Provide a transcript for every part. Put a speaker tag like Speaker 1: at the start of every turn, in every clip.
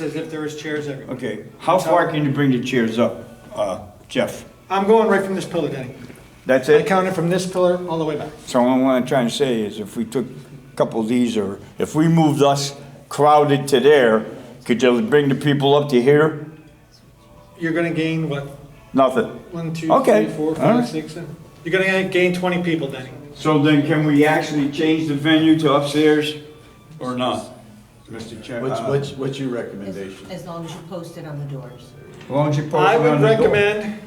Speaker 1: as if there was chairs everywhere.
Speaker 2: Okay, how far can you bring the chairs up, uh, Jeff?
Speaker 1: I'm going right from this pillar, Denny.
Speaker 2: That's
Speaker 1: I
Speaker 2: it?
Speaker 1: counted from this pillar all the way back.
Speaker 2: So what I'm trying to say is if we took a couple of these or if we moved us crowded to there, could you bring the people up to here?
Speaker 1: You're gonna gain, what,
Speaker 2: Nothing.
Speaker 1: one, two,
Speaker 2: Okay,
Speaker 1: three, four,
Speaker 2: all right.
Speaker 1: five, six, seven? You're gonna gain twenty people, Denny.
Speaker 2: So then can we actually change the venue to upstairs or not? Mr. Chair.
Speaker 3: What's,
Speaker 2: uh,
Speaker 3: what's, what's your
Speaker 4: As-
Speaker 3: recommendation?
Speaker 4: As long as you post it on the doors.
Speaker 2: Why don't you post
Speaker 1: I
Speaker 2: it
Speaker 1: would
Speaker 2: on the door?
Speaker 1: recommend,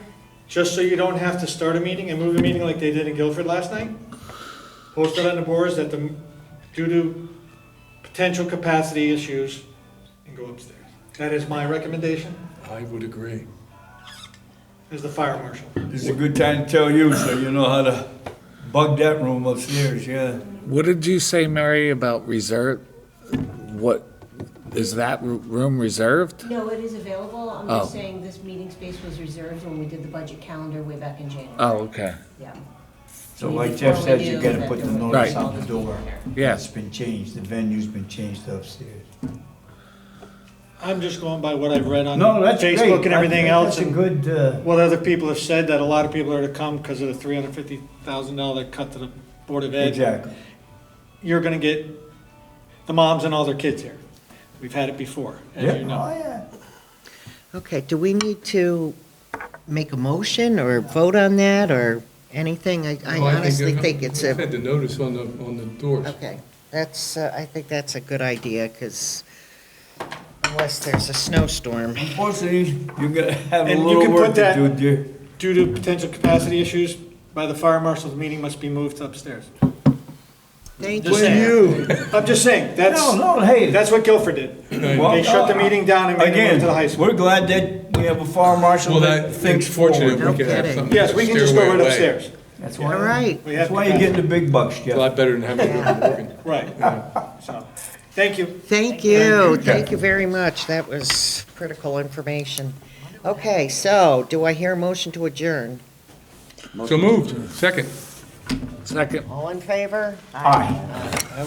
Speaker 1: just so you don't have to start a meeting and move a meeting like they did in Guilford last night, post it on the boards that the, due to potential capacity issues, and go upstairs. That is my recommendation
Speaker 5: I would agree.
Speaker 1: as the fire marshal.
Speaker 6: It's a good time to tell you, so you know how to bug that room upstairs, yeah.
Speaker 5: What did you say, Mary, about reserve? What, is that r- room reserved?
Speaker 4: No, it is available. I'm just
Speaker 5: Oh.
Speaker 4: saying this meeting space was reserved when we did the budget calendar way back in January.
Speaker 5: Oh, okay.
Speaker 4: Yeah.
Speaker 2: So like Jeff
Speaker 4: Before we
Speaker 2: says, you
Speaker 4: do
Speaker 2: gotta
Speaker 4: that,
Speaker 2: put the
Speaker 4: there was
Speaker 2: notice
Speaker 5: Right.
Speaker 2: on the door.
Speaker 5: Yes.
Speaker 2: It's been changed, the venue's been changed upstairs.
Speaker 1: I'm just going by what I've read on
Speaker 2: No, that's great.
Speaker 1: Facebook and everything
Speaker 2: That-
Speaker 1: else.
Speaker 2: That's a
Speaker 1: and-
Speaker 2: good, uh,
Speaker 1: What other people have said, that a lot of people are to come because of the three hundred fifty thousand dollar cut to the Board of Ed.
Speaker 2: exactly.
Speaker 1: You're gonna get the moms and all their kids here. We've had it before, as you know.
Speaker 2: Oh, yeah.
Speaker 7: Okay, do we need to make a motion or vote on that or anything? I I
Speaker 8: Well, think
Speaker 7: honestly
Speaker 8: they're-
Speaker 7: think it's
Speaker 8: Had
Speaker 7: a,
Speaker 8: the notice on the, on the doors.
Speaker 7: okay, that's, uh, I think that's a good idea because unless there's a snowstorm.
Speaker 6: Unfortunately, you're gonna have a
Speaker 1: And you
Speaker 6: little
Speaker 1: can put
Speaker 6: work to
Speaker 1: that-
Speaker 6: do, dear.
Speaker 1: Due to potential capacity issues, by the fire marshal, the meeting must be moved upstairs.
Speaker 7: Thank
Speaker 1: Just
Speaker 7: you.
Speaker 1: saying. I'm just saying,
Speaker 2: No,
Speaker 1: that's,
Speaker 2: no, hey.
Speaker 1: that's what Guilford did. They shut the meeting down and made it
Speaker 2: Again,
Speaker 1: move to the high school.
Speaker 2: we're glad that we have a fire marshal
Speaker 8: Well, that,
Speaker 2: that
Speaker 8: it's
Speaker 2: thinks forward.
Speaker 8: fortunate
Speaker 7: No
Speaker 8: we can have
Speaker 7: kidding.
Speaker 8: something.
Speaker 1: Yes, we can just go right upstairs.
Speaker 2: That's
Speaker 7: All
Speaker 2: why,
Speaker 7: right.
Speaker 1: We have
Speaker 2: that's why you're getting
Speaker 1: capacity.
Speaker 2: the big bucks,
Speaker 8: A
Speaker 2: Jeff.
Speaker 8: lot better than having it broken.
Speaker 1: Right, so, thank you.
Speaker 7: Thank you, thank you very much. That was critical information. Okay, so do I hear a motion to adjourn?
Speaker 8: So moved, second.
Speaker 5: Second.
Speaker 7: All in favor?
Speaker 2: Aye.